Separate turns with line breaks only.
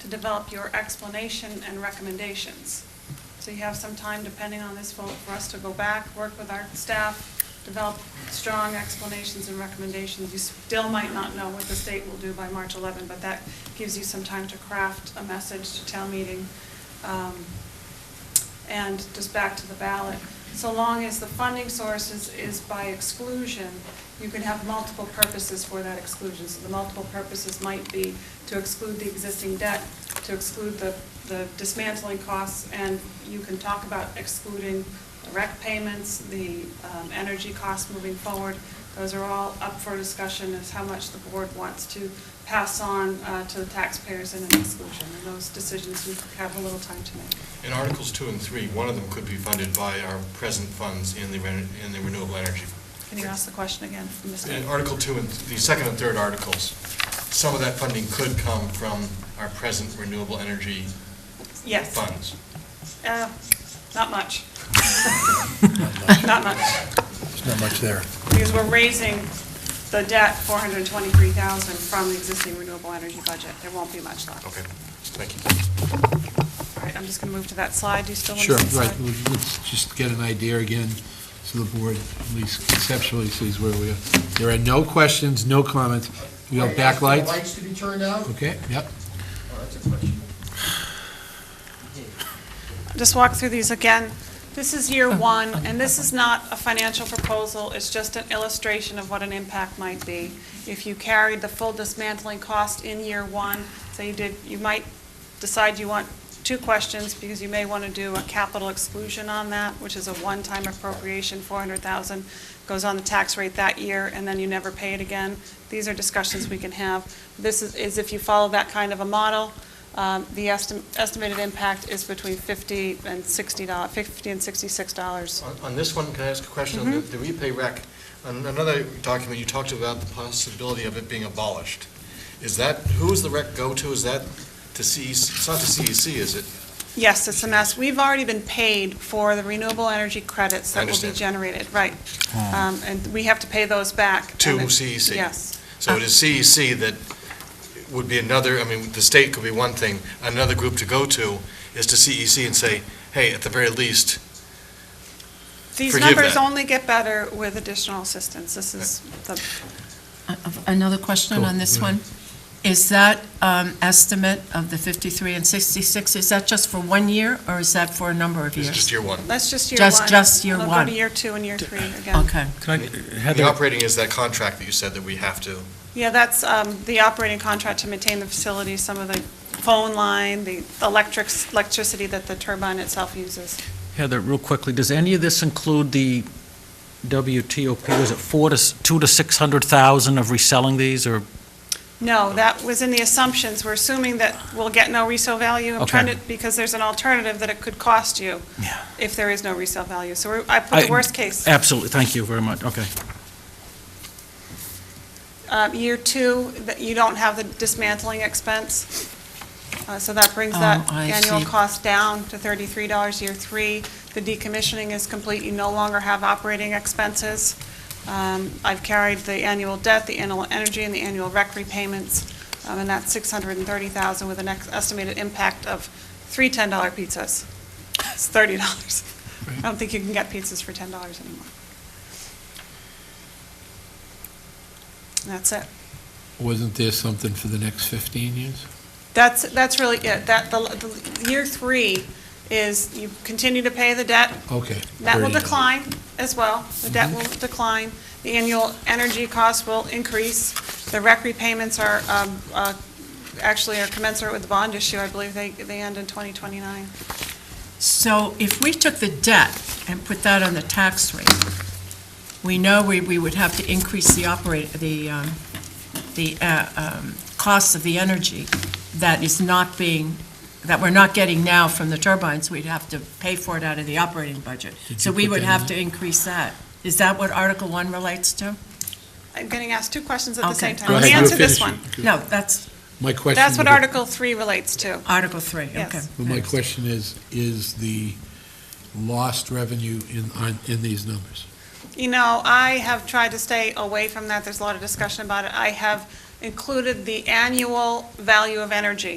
to develop your explanation and recommendations. So you have some time, depending on this vote, for us to go back, work with our staff, develop strong explanations and recommendations. You still might not know what the state will do by March 11, but that gives you some time to craft a message to town meeting. um, And just back to the ballot, so long as the funding source is, is by exclusion, you can have multiple purposes for that exclusion. So the multiple purposes might be to exclude the existing debt, to exclude the, the dismantling costs, and you can talk about excluding the rec payments, the um, energy costs moving forward. Those are all up for discussion as how much the board wants to pass on uh, to the taxpayers in an exclusion. And those decisions you have a little time to make.
In Articles 2 and 3, one of them could be funded by our present funds in the ren- in the renewable energy.
Can you ask the question again? Mr.
In Article 2 and, the second and third articles, some of that funding could come from our present renewable energy
Yes.
funds.
Uh, Not much. Not much.
There's not much there.
Because we're raising the debt, 423,000, from the existing renewable energy budget. There won't be much left.
Okay, thank you.
All right, I'm just going to move to that slide. Do you still want
Sure,
to see the
right,
slide?
Let's- let's just get an idea again, so the board at least conceptually sees where we are. There are no questions, no comments, you have
For
backlights?
Lights to be turned out?
Okay, yep,
Oh, that's a question.
just walk through these again. This is year one, and this is not a financial proposal, it's just an illustration of what an impact might be. If you carried the full dismantling cost in year one, so you did, you might decide you want two questions, because you may want to do a capital exclusion on that, which is a one-time appropriation, four hundred thousand, goes on the tax rate that year, and then you never pay it again. These are discussions we can have. This is, is if you follow that kind of a model, um, The esti- estimated impact is between 50 and 60, dollars, 50 and 66 dollars.
On- On this one, can I ask a question? on The
Mm-hmm.
the repay rec, on another document, you talked about the possibility of it being abolished. Is that, who is the rec go to? Is that to CEC? It's not to CEC, is it?
Yes, it's a mess. We've already been paid for the renewable energy credits
I
that will be
understand.
generated, right.
Hmm.
Um, And we have to pay those back.
To
And it-
CEC.
Yes.
So it is CEC that would be another, I mean, the state could be one thing, another group to go to is to CEC and say, hey, at the very least,
These
Forgive
numbers
that.
only get better with additional assistance. This is the
Uh, Another question
Go,
on this
go
one? Is that um, estimate of the 53 and 66, is that just for one year, or is that for a number of
this is just
years?
year one.
That's just year one.
Just- just year
We'll go
one.
to year two and year three again.
Okay.
Can I,
The
Heather,
operating is that contract that you said that we have to,
Yeah, that's um, the operating contract to maintain the facility, some of the phone line, the electrics, electricity that the turbine itself uses.
Heather, real quickly, does any of this include the WTOP, was it four to, s- two to 600,000 of reselling these, or,
No, that was in the assumptions. We're assuming that we'll get no resale value. I'm
Okay.
trying to, because there's an alternative that it could cost you
Yeah.
if there is no resale value. So we're- I put the
I-
worst case.
absolutely, thank you very much, okay.
Um, Year two, that you don't have the dismantling expense. Uh, So that brings that
Oh, I
annual
see.
cost down to $33. Year three, the decommissioning is complete. You no longer have operating expenses. Um, I've carried the annual debt, the annual energy, and the annual rec repayments, um, and that's $630,000 with an ex- estimated impact of three $10 pizzas. It's $30. I don't think you can get pizzas for $10 anymore. And that's it.
wasn't there something for the next 15 years?
That's, that's really it. That, the, the year three is you continue to pay the debt.
Okay.
That will
there it is.
decline as well. The debt
Mm-hmm.
will decline. The annual energy costs will increase. The rec repayments are, um, uh, actually are commensurate with the bond issue. I believe they, they end in 2029.
So if we took the debt and put that on the tax rate, we know we, we would have to increase the operate, the, um, the uh, um, cost of the energy that is not being, that we're not getting now from the turbines, we'd have to pay for it out of the operating budget.
Did
So
you
we
put
would
that
have
in?
to increase that. Is that what Article One relates to?
I'm getting asked two questions at the
Okay.
same time.
Go
Let me
ahead, you
answer this
finish
one.
it.
No, that's
My question.
That's what
would-
Article Three relates to.
Article Three, okay.
Yes.
Well, My question is, is the lost revenue in, on, in these numbers?
You know, I have tried to stay away from that. There's a lot of discussion about it. I have included the annual value of energy